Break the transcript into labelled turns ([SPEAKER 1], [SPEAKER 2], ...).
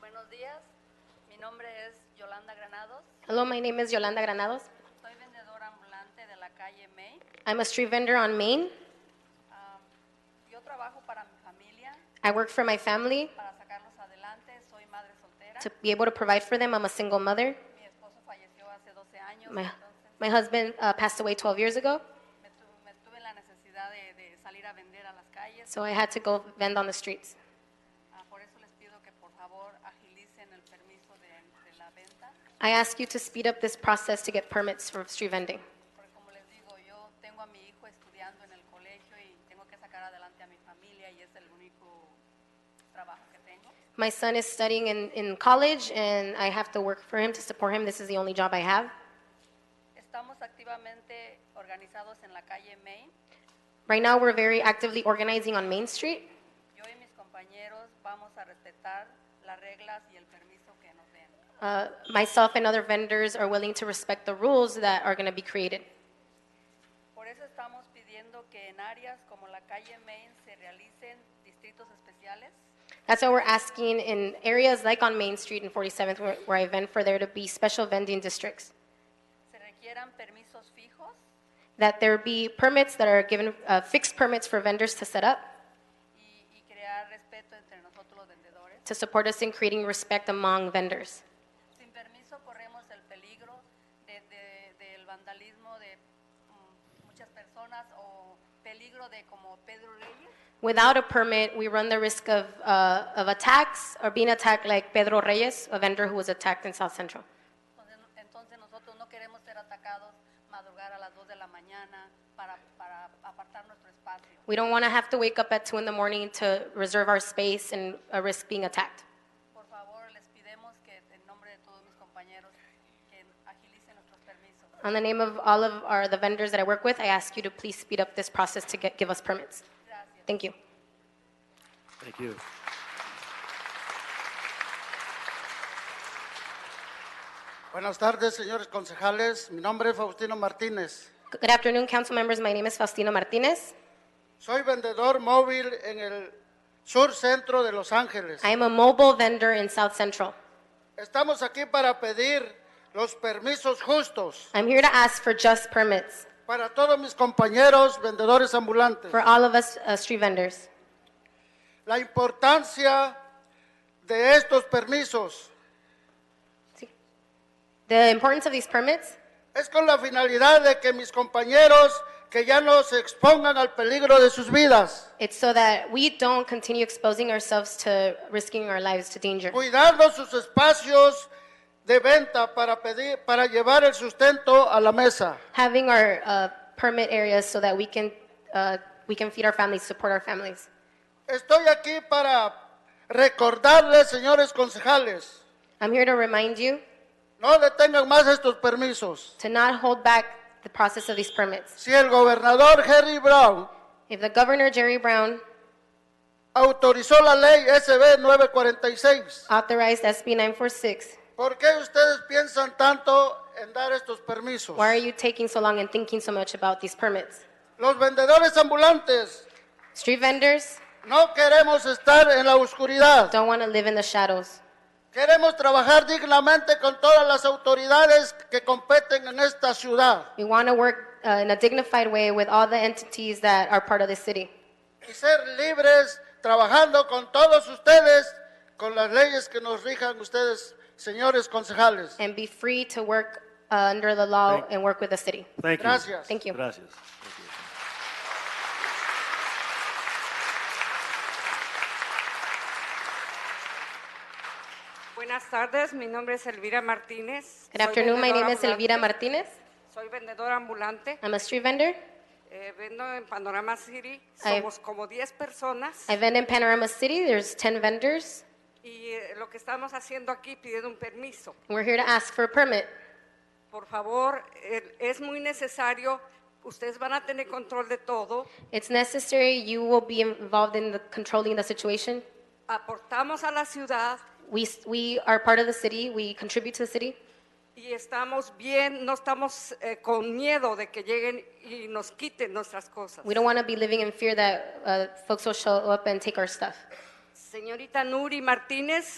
[SPEAKER 1] Buenos días, mi nombre es Yolanda Granados,
[SPEAKER 2] Hello, my name is Yolanda Granados.
[SPEAKER 1] soy vendedora ambulante de la calle May.
[SPEAKER 2] I'm a street vendor on Main.
[SPEAKER 1] Ah, yo trabajo para mi familia,
[SPEAKER 2] I work for my family
[SPEAKER 1] para sacarlos adelante, soy madre soltera.
[SPEAKER 2] to be able to provide for them. I'm a single mother.
[SPEAKER 1] Mi esposo falleció hace 12 años,
[SPEAKER 2] My,
[SPEAKER 1] entonces
[SPEAKER 2] my husband uh, passed away 12 years ago,
[SPEAKER 1] me, tu- me tuve la necesidad de, de salir a vender a las calles.
[SPEAKER 2] so I had to go vend on the streets.
[SPEAKER 1] Ah, por eso les pido que por favor agilicen el permiso de, de la venta,
[SPEAKER 2] I ask you to speed up this process to get permits for street vending.
[SPEAKER 1] porque como les digo, yo tengo a mi hijo estudiando en el colegio y tengo que sacar adelante a mi familia y es el único trabajo que tengo.
[SPEAKER 2] My son is studying in, in college, and I have to work for him to support him. This is the only job I have.
[SPEAKER 1] Estamos activamente organizados en la calle Main.
[SPEAKER 2] Right now, we're very actively organizing on Main Street.
[SPEAKER 1] Yo y mis compañeros vamos a respetar las reglas y el permiso que nos den.
[SPEAKER 2] Uh, myself and other vendors are willing to respect the rules that are going to be created.
[SPEAKER 1] Por eso estamos pidiendo que en áreas como la calle Main se realicen distritos especiales
[SPEAKER 2] That's why we're asking in areas like on Main Street and 47th, where, where I vend, for there to be special vending districts,
[SPEAKER 1] se requieran permisos fijos
[SPEAKER 2] that there be permits that are given, uh, fixed permits for vendors to set up
[SPEAKER 1] y, y crear respeto entre nosotros los vendedores.
[SPEAKER 2] to support us in creating respect among vendors.
[SPEAKER 1] Sin permiso corremos el peligro de- de- del vandalismo de mm, muchas personas o peligro de como Pedro Reyes.
[SPEAKER 2] Without a permit, we run the risk of, uh, of attacks or being attacked like Pedro Reyes, a vendor who was attacked in South Central.
[SPEAKER 1] Entonces, entonces nosotros no queremos ser atacados madrugar a las 2 de la mañana para, para apartar nuestro espacio.
[SPEAKER 2] We don't want to have to wake up at 2 in the morning to reserve our space and uh, risk being attacked.
[SPEAKER 1] Por favor, les pidemos que en nombre de todos mis compañeros que agilicen nuestros permisos.
[SPEAKER 2] On the name of all of our, the vendors that I work with, I ask you to please speed up this process to get, give us permits.
[SPEAKER 1] Gracias.
[SPEAKER 2] Thank you.
[SPEAKER 3] Thank you.
[SPEAKER 4] Buenas tardes, señores concejales. Mi nombre es Faustino Martínez.
[SPEAKER 2] Good afternoon, council members. My name is Faustino Martinez.
[SPEAKER 4] Soy vendedor móvil en el sur centro de Los Ángeles.
[SPEAKER 2] I am a mobile vendor in South Central.
[SPEAKER 4] Estamos aquí para pedir los permisos justos
[SPEAKER 2] I'm here to ask for just permits
[SPEAKER 4] para todos mis compañeros vendedores ambulantes.
[SPEAKER 2] for all of us uh, street vendors.
[SPEAKER 4] La importancia de estos permisos
[SPEAKER 2] The importance of these permits
[SPEAKER 4] es con la finalidad de que mis compañeros que ya no se expongan al peligro de sus vidas,
[SPEAKER 2] it's so that we don't continue exposing ourselves to risking our lives to danger,
[SPEAKER 4] cuidando sus espacios de venta para pedir para llevar el sustento a la mesa.
[SPEAKER 2] having our uh, permit areas so that we can uh, we can feed our families, support our families.
[SPEAKER 4] Estoy aquí para recordarles, señores concejales,
[SPEAKER 2] I'm here to remind you
[SPEAKER 4] no detengan más estos permisos.
[SPEAKER 2] to not hold back the process of these permits.
[SPEAKER 4] Si el gobernador Harry Brown
[SPEAKER 2] If the governor Jerry Brown
[SPEAKER 4] autorizó la ley SB 946,
[SPEAKER 2] authorized SB 946,
[SPEAKER 4] ¿por qué ustedes piensan tanto en dar estos permisos?
[SPEAKER 2] Why are you taking so long and thinking so much about these permits?
[SPEAKER 4] Los vendedores ambulantes
[SPEAKER 2] Street vendors
[SPEAKER 4] no queremos estar en la oscuridad.
[SPEAKER 2] don't want to live in the shadows.
[SPEAKER 4] Queremos trabajar dignamente con todas las autoridades que competen en esta ciudad
[SPEAKER 2] We want to work uh, in a dignified way with all the entities that are part of the city
[SPEAKER 4] y ser libres trabajando con todos ustedes, con las leyes que nos rijan ustedes, señores concejales.
[SPEAKER 2] and be free to work uh, under the law
[SPEAKER 3] Thank-
[SPEAKER 2] and work with the city.
[SPEAKER 3] Thank you.
[SPEAKER 4] Gracias.
[SPEAKER 2] Thank you.
[SPEAKER 3] Gracias. Thank you.
[SPEAKER 5] Buenas tardes, mi nombre es Elvira Martínez.
[SPEAKER 2] Good
[SPEAKER 5] Soy
[SPEAKER 2] afternoon. My
[SPEAKER 5] vendedora
[SPEAKER 2] name is
[SPEAKER 5] ambulante.
[SPEAKER 2] Elvira Ah. Martinez.
[SPEAKER 5] Soy vendedora ambulante.
[SPEAKER 2] I'm a street vendor.
[SPEAKER 5] Eh, vendo en Panorama City.
[SPEAKER 2] I-
[SPEAKER 5] Somos como 10 personas.
[SPEAKER 2] I vend in Panorama City. There's 10 vendors.
[SPEAKER 5] Y eh, lo que estamos haciendo aquí, pidiendo un permiso.
[SPEAKER 2] We're here to ask for a permit.
[SPEAKER 5] Por favor, eh, es muy necesario. Ustedes van a tener control de todo.
[SPEAKER 2] It's necessary. You will be involved in the controlling the situation.
[SPEAKER 5] Aportamos a la ciudad
[SPEAKER 2] We, s- we are part of the city. We contribute to the city.
[SPEAKER 5] y estamos bien. No estamos eh, con miedo de que lleguen y nos quiten nuestras cosas.
[SPEAKER 2] We don't want to be living in fear that uh, folks will show up and take our stuff.
[SPEAKER 5] Señorita Nuri Martínez.